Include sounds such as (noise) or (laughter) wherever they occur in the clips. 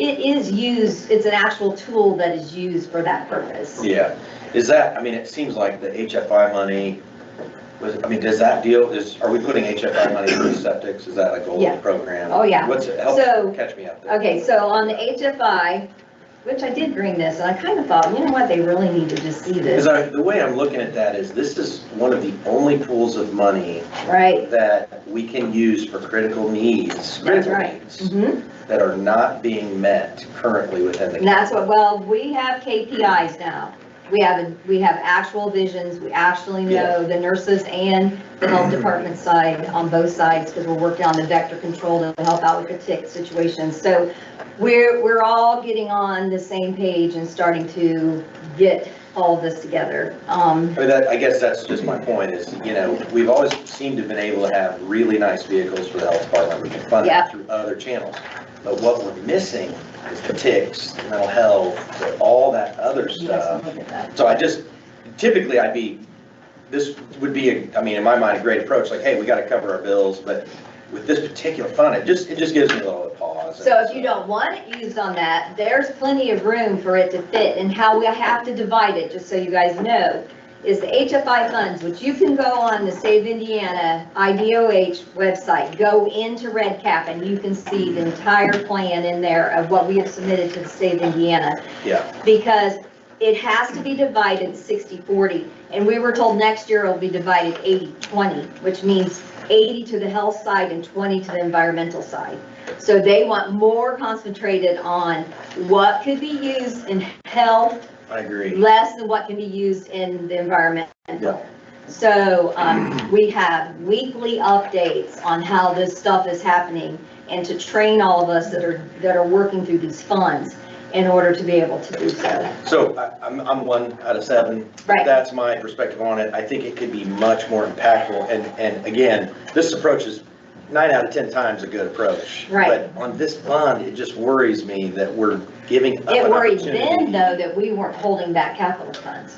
it is used, it's an actual tool that is used for that purpose. Yeah, is that, I mean, it seems like the HFI money, was, I mean, does that deal, is, are we putting HFI money into septics? Is that like a Yeah. old program? Oh, yeah. What's, it? So- help, catch me up there. Okay, so on the HFI, which I did bring this, and I kind of thought, you know what, they really need to just see Because this, I, the way I'm looking at that is this is one of the only pools of money right? that we can use for critical needs, That's critical right. needs Mhm. that are not being met currently within And the. that's what, well, we have KPIs now. We have, we have actual visions, we actually know the nurses and the health department side on both sides, because we're working on the vector control to help out with the tick situation. So we're, we're all getting on the same page and starting to get all of this together. Um, I mean, that, I guess that's just my point is, you know, we've always seemed to have been able to have really nice vehicles for the health department. We can fund Yeah. it through other channels. But what we're missing is the ticks, the mental health, the- all that other you guys stuff. can look at that. So I just, typically I'd be, this would be, a- I mean, in my mind, a great approach, like, hey, we gotta cover our bills, but with this particular fund, it just, it just gives me a little pause. So if you don't want it used on that, there's plenty of room for it to fit, and how we have to divide it, just so you guys know, is the HFI funds, which you can go on the Save Indiana IDOH website, go into Red Cap, and you can see the entire plan in there of what we have submitted to the Save Indiana. Yeah. Because it has to be divided 60/40, and we were told next year it'll be divided 80/20, which means 80 to the health side and 20 to the environmental side. So they want more concentrated on what could be used in health, I agree. less than what can be used in the Yeah. environmental. So, um, we have weekly updates on how this stuff is happening and to train all of us that are, that are working through these funds in order to be able to do so. So I- I'm, I'm one out of seven. Right, That's my perspective on it. I think it could be much more impactful. And, and again, this approach is nine out of 10 times a good approach. Right. But on this bond, it just worries me that we're giving up it an worried opportunity. them though that we weren't holding back capital funds.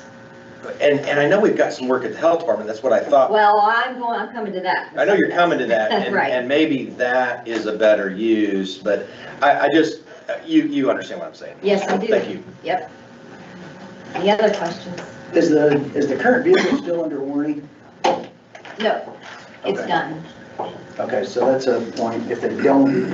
And, and I know we've got some work at the health department. That's what I thought. Well, I'm going, I'm coming to that. I know you're coming to (laughs) that, and, Right. and maybe that is a better use, but I, I just, you, you understand what I'm saying. Yes, I do. Thank you. Yep. Any other questions? Is the, is the current vehicle still under warranty? No, it's Okay. done. Okay, so that's a point, if they don't.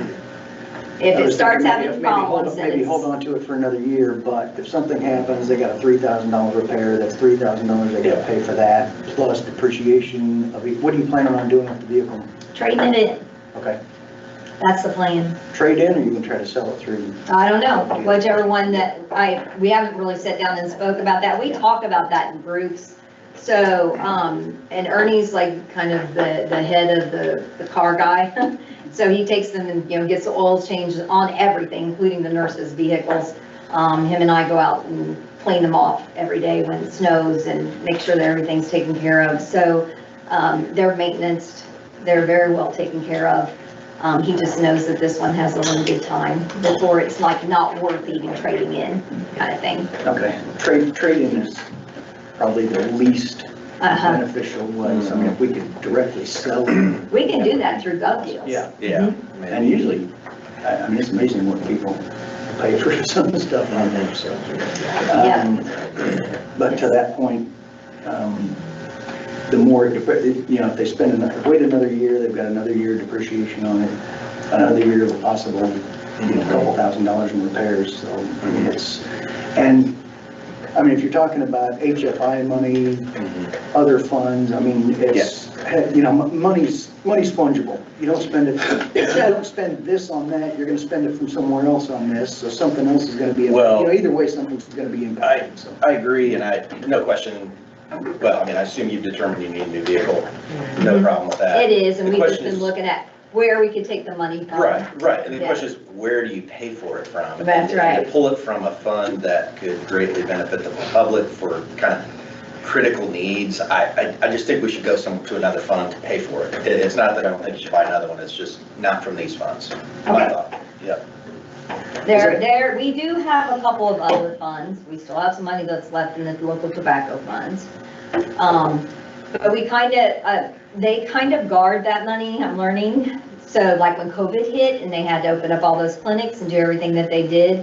If I it was starts thinking maybe- having maybe hold- problems, then Maybe hold it's, on to it for another year, but if something happens, they got a three thousand dollar repair, that's three thousand dollars they gotta pay for that, plus depreciation of, it. what are you planning on doing with the vehicle? trading it in, Okay, that's the plan. trade in, or you can try to sell it through? I don't know, whichever one that, I, we haven't really sat down and spoke about that. We talk about that in groups. So, um, and Ernie's like kind of the, the head of the, the car guy. (laughs) So he takes them and, you know, gets the oil changes on everything, including the nurses' vehicles. Um, him and I go out and clean them off every day when it snows and make sure that everything's taken care of. So, um, they're maintenance, they're very well taken care of. Um, he just knows that this one has a limited time before it's like not worth even trading in kind of thing. Okay, trade, trade in is probably the least Uh-huh. beneficial way, so I mean, if we could directly sell it. We can do that through gov deals. Yeah. Mm-hmm. And usually, I, I mean, it's amazing what people pay for (laughs) some of the stuff on there, so. um, But to that point, um, the more, it depre- you know, if they spend another, wait another year, they've got another year depreciation on it, another year of possible, you know, couple thousand dollars in repairs, so it's, and, I mean, if you're talking about HFI money, other funds, I mean, it's, you know, mon- money's, money's fungible. You don't spend it, if you don't spend this on that, you're gonna spend it from somewhere else on this, so something else is gonna be, you Well- know, either way, something's gonna be impacted, so. I agree, and I, no question, well, I mean, I assume you've determined you need a new vehicle. No problem with that. Mm-hmm. It is, and The we've just question been is- looking at where we could take the money from. Right, right, and the Yeah. question is, where do you pay for it from? That's And to right. Pull it from a fund that could greatly benefit the public for kind of critical needs, I, I, I just think we should go some, to another fund to pay for it. It- It's not that I don't think you should buy another one, it's just not from these funds, my Okay. thought, yep. There, there, we do have a couple of other funds. We still have some money that's left in the local tobacco funds. Um, But we kind of, uh, they kind of guard that money, I'm learning. So like when COVID hit and they had to open up all those clinics and do everything that they did,